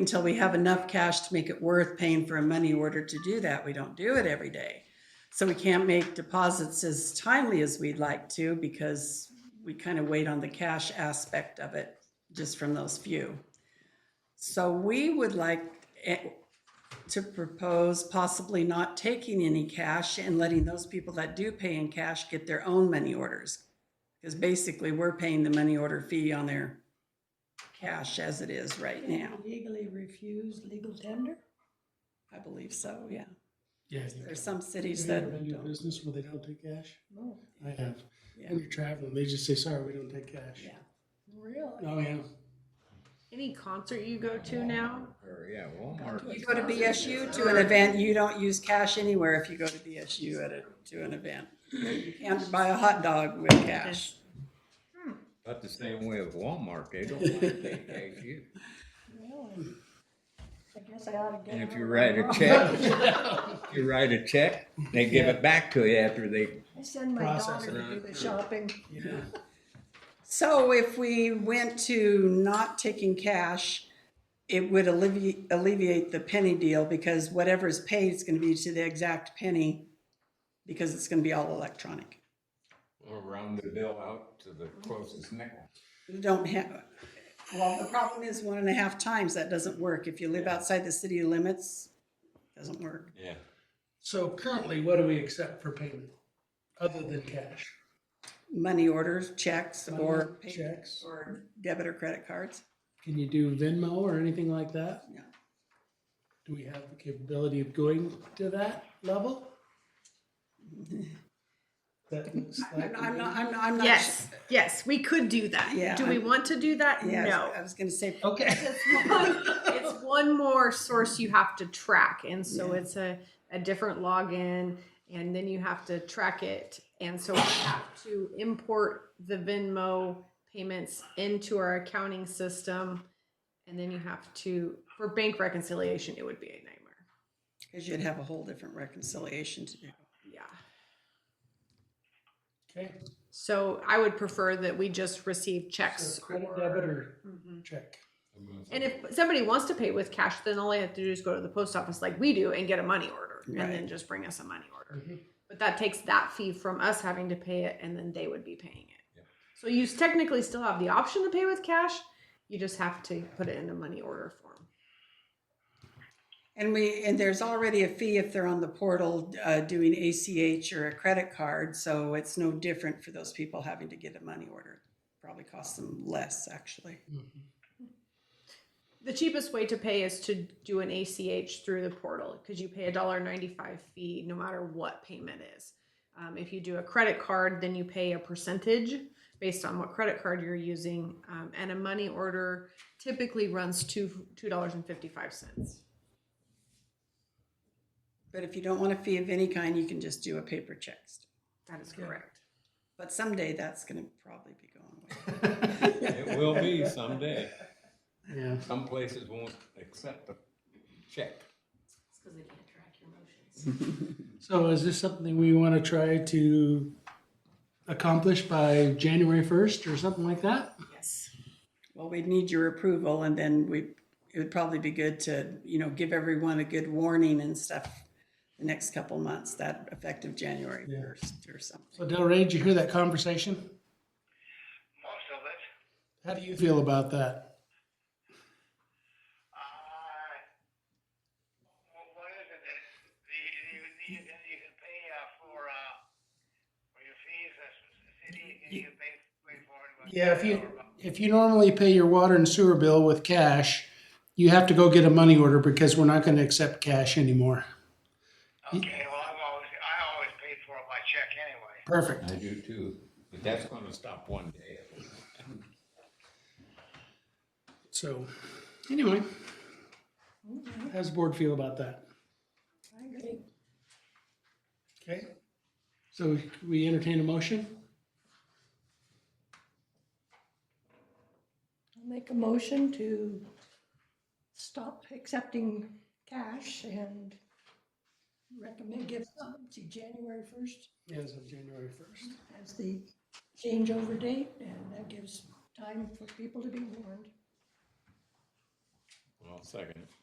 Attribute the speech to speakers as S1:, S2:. S1: until we have enough cash to make it worth paying for a money order to do that. We don't do it every day. So we can't make deposits as timely as we'd like to because we kind of wait on the cash aspect of it just from those few. So we would like eh, to propose possibly not taking any cash and letting those people that do pay in cash get their own money orders. Because basically, we're paying the money order fee on their cash as it is right now.
S2: Legally refuse legal tender?
S1: I believe so, yeah.
S3: Yeah.
S1: There's some cities
S3: Have you
S1: that
S3: ever been to a
S1: don't,
S3: business where they don't take cash?
S2: No,
S3: I have.
S1: yeah,
S3: When you're traveling, they just say, sorry, we don't take cash.
S1: yeah.
S2: really?
S3: Oh, yeah.
S4: Any concert you go to now?
S5: Or, yeah, Walmart.
S1: You go to BSU to an event, you don't use cash anywhere if you go to BSU at a, to an event. You can't buy a hot dog with cash.
S5: About the same way with Walmart, they don't want to take cash either.
S2: Really? I guess I ought to get.
S5: And if
S2: out
S5: you
S2: of
S5: write
S2: my
S5: a
S2: room.
S5: check, if you write a check, they give it back to you after they,
S2: I send my
S3: Process
S2: daughter to do
S5: it.
S2: the shopping.
S3: Yeah.
S1: So if we went to not taking cash, it would alleviate, alleviate the penny deal because whatever is paid is gonna be to the exact penny because it's gonna be all electronic.
S5: or round the bill out to the
S1: Mm-hmm.
S5: closest nickel.
S1: You don't have, well, the problem is one and a half times, that doesn't work. If you live outside the city limits, doesn't work.
S5: Yeah.
S3: So currently, what do we accept for payment other than cash?
S1: Money orders, checks, or
S3: Money,
S1: pay-
S3: checks.
S1: Or debit or credit cards.
S3: Can you do Venmo or anything like that?
S1: No.
S3: Do we have the capability of going to that level? That looks
S1: I'm
S3: like.
S1: not, I'm not, I'm not. I'm not
S4: Yes, yes, we could do that.
S1: Yeah,
S4: Do we
S1: I'm-
S4: want to do that?
S1: su- Yeah,
S4: No.
S1: I was gonna say,
S3: Okay.
S4: It's one- it's one more source you have to track, and so
S1: Yeah.
S4: it's a, a different login, and then you have to track it, and so we have to import the Venmo payments into our accounting system, and then you have to for bank reconciliation, it would be a nightmare.
S1: cause you'd have a whole different reconciliation to do.
S4: Yeah.
S3: Okay.
S4: So I would prefer that we just receive checks.
S3: So Credit,
S4: or-
S3: debit, or
S4: Mhm.
S3: check?
S4: And if somebody wants to pay with cash, then all they have to do is go to the post office like we do and get a money order and
S1: Right.
S4: then just bring us a money order.
S3: Mm-hmm.
S4: But that takes that fee from us having to pay it and then they would be paying it.
S5: Yeah.
S4: So you s- technically still have the option to pay with cash. You just have to put it in a money order form.
S1: And we, and there's already a fee if they're on the portal, uh, doing ACH or a credit card, so it's no different for those people having to get a money order. Probably costs them less, actually.
S3: Mm-hmm.
S4: The cheapest way to pay is to do an ACH through the portal because you pay a dollar ninety-five fee no matter what payment is. Um, if you do a credit card, then you pay a percentage based on what credit card you're using, um, and a money order typically runs two two dollars and fifty-five cents.
S1: But if you don't want a fee of any kind, you can just do a paper check.
S4: That is correct.
S1: But someday that's gonna probably be going
S5: It will be someday.
S3: Yeah.
S5: Some places won't accept the check.
S3: So is this something we want to try to accomplish by January first or something like that?
S4: Yes.
S1: Well, we'd need your approval and then we, it would probably be good to, you know, give everyone a good warning and stuff the next couple months, that effective January
S3: Yeah.
S1: first or something.
S3: So Delray, did you hear that conversation?
S6: most of it.
S3: How do you feel about that?
S6: Uh, wh- what is it? It's the, the, the, you can- you can pay uh, for uh, for your fees as a city. You can pay, pay for it. but-
S3: Yeah, if you if you normally pay your water and sewer bill with cash, you have to go get a money order because we're not going to accept cash anymore.
S6: Okay. Well, I've always I always paid for it by check anyway.
S3: Perfect.
S5: I do too, but that's gonna stop one day.
S3: So anyway, how's the board feel about that?
S2: I agree.
S3: Okay. So we entertain a motion?
S2: I'll make a motion to stop accepting cash and recommend give some to January first
S3: As of January first.
S2: as the changeover date, and that gives time for people to be warned.
S5: Well, second.